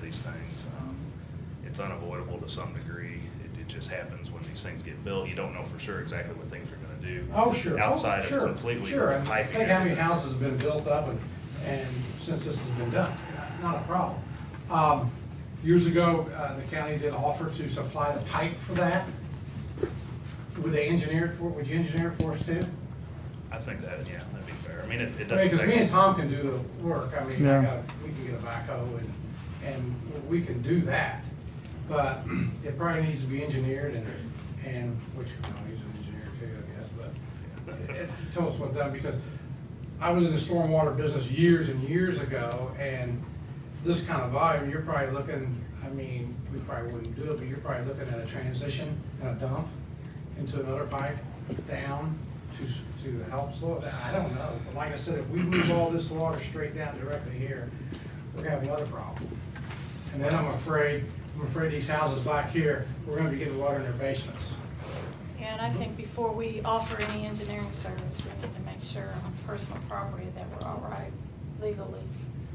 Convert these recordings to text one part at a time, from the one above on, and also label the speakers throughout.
Speaker 1: these things. Um, It's unavoidable to some degree. It, it just happens when these things get built. You don't know for sure exactly what things are gonna do.
Speaker 2: Oh, sure. Oh,
Speaker 1: Outside
Speaker 2: sure,
Speaker 1: of completely.
Speaker 2: Sure, I
Speaker 1: piping
Speaker 2: think how many
Speaker 1: everything.
Speaker 2: houses have been built up and, and since this has been done, not a problem. Um, Years ago, uh, the county did offer to supply the pipe for that. Would they engineer it for, would you engineer it for us too?
Speaker 1: I think that, yeah, that'd be fair. I mean, it, it doesn't.
Speaker 2: Because me
Speaker 1: take-
Speaker 2: and Tom can do the work, I mean, I
Speaker 3: Yeah.
Speaker 2: got, we can get a backhoe and, and we can do that. But it probably needs to be engineered and, and, which, you know, he's an engineer too, I guess, but it- it- tell us what done, because I was in the stormwater business years and years ago, and this kind of volume, you're probably looking, I mean, we probably wouldn't do it, but you're probably looking at a transition and a dump into another pipe down to, to help slow it down. I don't know. But like I said, if we move all this water straight down directly here, we're gonna have another problem. And then I'm afraid, I'm afraid these houses back here, we're gonna be getting water in their basements.
Speaker 4: Yeah, and I think before we offer any engineering service, we need to make sure on personal property that we're all right legally.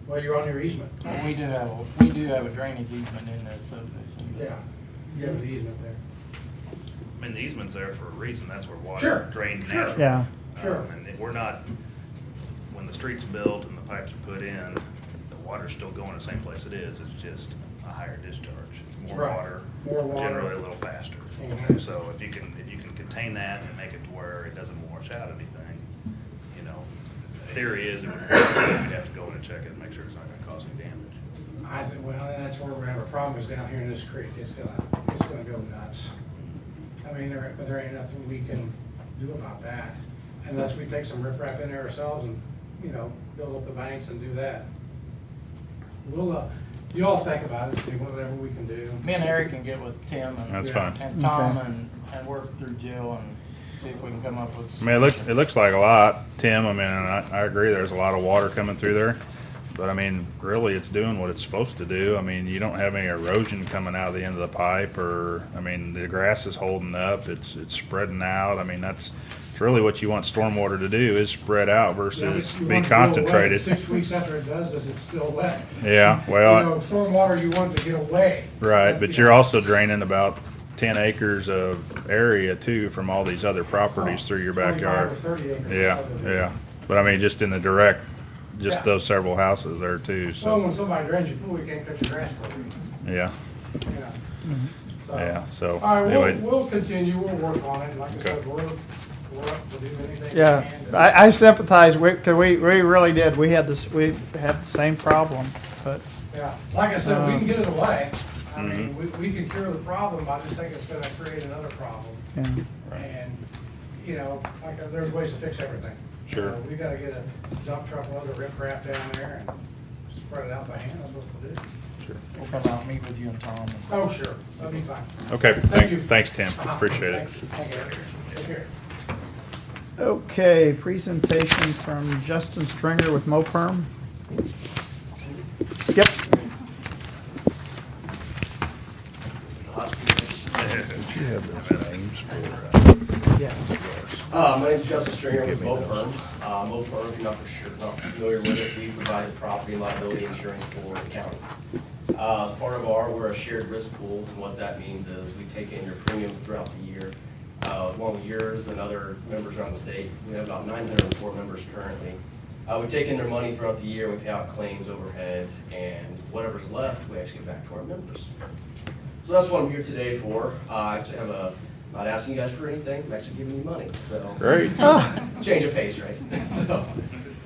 Speaker 2: Well, you're on your easement.
Speaker 5: Well, we do have, a- we do have a drainage easement in that subdivision. but-
Speaker 2: Yeah, you have an easement there.
Speaker 1: I mean, the easement's there for a reason. That's where
Speaker 2: Sure,
Speaker 1: water drains
Speaker 2: sure.
Speaker 1: naturally.
Speaker 3: Yeah.
Speaker 2: Sure.
Speaker 1: Um, And it- we're not, when the street's built and the pipes are put in, the water's still going the same place it is. It's just a higher discharge. It's More
Speaker 2: Right.
Speaker 1: water.
Speaker 2: More water.
Speaker 1: Generally a little faster.
Speaker 2: Mhm.
Speaker 1: So if you can, if you can contain that and make it to where it doesn't wash out anything, you know, theory is, it would- we'd have to go in and check it and make sure it's not gonna cause any damage.
Speaker 2: I think, well, and that's where we're gonna have a problem is down here in this creek. It's gonna, it's gonna go nuts. I mean, there, but there ain't nothing we can do about that unless we take some riprap in there ourselves and, you know, build up the banks and do that. We'll, uh, you all think about it, see whatever we can do.
Speaker 5: Me and Eric can get with Tim and,
Speaker 6: That's
Speaker 2: Yeah.
Speaker 6: fine.
Speaker 5: and Tom
Speaker 3: Okay.
Speaker 5: and, and work through Jill and see if we can come up with.
Speaker 6: I mean, it looks, it looks like a lot, Tim, I mean, and I, I agree, there's a lot of water coming through there. But I mean, really, it's doing what it's supposed to do. I mean, you don't have any erosion coming out of the end of the pipe or, I mean, the grass is holding up, it's, it's spreading out. I mean, that's, it's really what you want stormwater to do is spread out
Speaker 2: You know,
Speaker 6: versus
Speaker 2: you
Speaker 6: be
Speaker 2: want it to go away.
Speaker 6: concentrated.
Speaker 2: Six weeks after it does this, it's still wet.
Speaker 6: Yeah,
Speaker 2: You know,
Speaker 6: well,
Speaker 2: stormwater, you want it to get away.
Speaker 6: right, but
Speaker 2: You
Speaker 6: you're
Speaker 2: know,
Speaker 6: also draining about ten acres of area too from all these other properties through your
Speaker 2: 25
Speaker 6: backyard.
Speaker 2: or 30 acres.
Speaker 6: Yeah, yeah. But I mean, just in the direct, just
Speaker 2: Yeah.
Speaker 6: those several houses there too,
Speaker 2: Well,
Speaker 6: so,
Speaker 2: when somebody drains your pool, you can't cut your grass for it.
Speaker 6: yeah,
Speaker 2: Yeah. So-
Speaker 6: yeah, so.
Speaker 2: All right,
Speaker 6: anyway,
Speaker 2: we'll, we'll continue, we'll work on it, like I
Speaker 6: Okay.
Speaker 2: said, we're, we're up to do anything we
Speaker 3: Yeah,
Speaker 2: can. to-
Speaker 3: I, I sympathize with, cause we, we really did. We had this, we had the same problem, but,
Speaker 2: Yeah, like I said, we can
Speaker 3: Um,
Speaker 2: get it away, I mean, we,
Speaker 6: Mm-hmm.
Speaker 2: we can cure the problem, I just think it's gonna create another problem.
Speaker 3: yeah.
Speaker 2: And, you know, like, uh, there's ways to fix everything.
Speaker 6: Sure.
Speaker 2: Uh, We gotta get a dump truck load of riprap down there and spread it out by hand, that's what we'll do.
Speaker 5: We'll come out, meet with you and Tom. and-
Speaker 2: Oh, sure, that'll be fine.
Speaker 6: Okay,
Speaker 2: you. Uh-huh.
Speaker 6: thank, thanks, Tim, appreciate
Speaker 2: Thanks.
Speaker 6: it.
Speaker 2: Thank you, Eric. take care.
Speaker 3: Okay, presentation from Justin Stringer with MoPerm. Yep, yeah.
Speaker 7: Uh, my name's Justin Stringer with MoPerm. Uh, MoPerm, if you're not for sure, not familiar with it, we provide property and liability insurance for the county. Uh, as part of our, we're a shared risk pool, and what that means is we take in your premiums throughout the year. Uh, along with yours and other members around the state, we have about nine hundred and four members currently. Uh, we take in their money throughout the year, we pay out claims, overheads, and whatever's left, we actually give back to our members. So that's what I'm here today for. Uh, I actually have a, not asking you guys for anything, I'm actually giving you money, so.
Speaker 6: Great.
Speaker 3: Oh,
Speaker 7: Change of pace, right? So,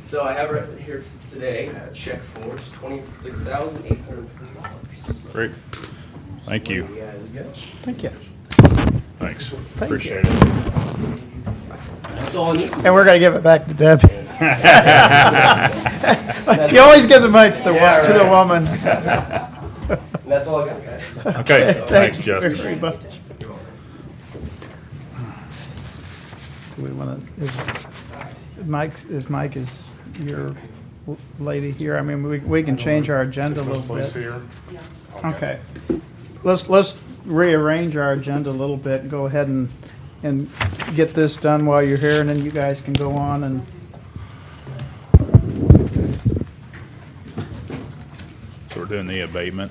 Speaker 7: so I have right here today, a check for it's twenty-six thousand eight hundred fifty dollars.
Speaker 6: Great, thank
Speaker 7: You
Speaker 6: you,
Speaker 7: guys go.
Speaker 3: Thank you.
Speaker 6: thanks,
Speaker 3: you.
Speaker 6: appreciate it.
Speaker 7: That's all I need.
Speaker 3: And we're gonna give it back to Debbie. You always give the money to the, wo- to the woman.
Speaker 7: And That's all I got, guys.
Speaker 6: Okay, thanks,
Speaker 3: you very
Speaker 6: Justin.
Speaker 3: much.
Speaker 7: You're welcome.
Speaker 3: Do we wanna, is, Mike's, is Mike is your l- lady here? I mean, we, we can change our agenda a little bit. Okay. Let's, let's rearrange our agenda a little bit and go ahead and, and get this done while you're here, and then you guys can go on and.
Speaker 6: So we're doing the abatement.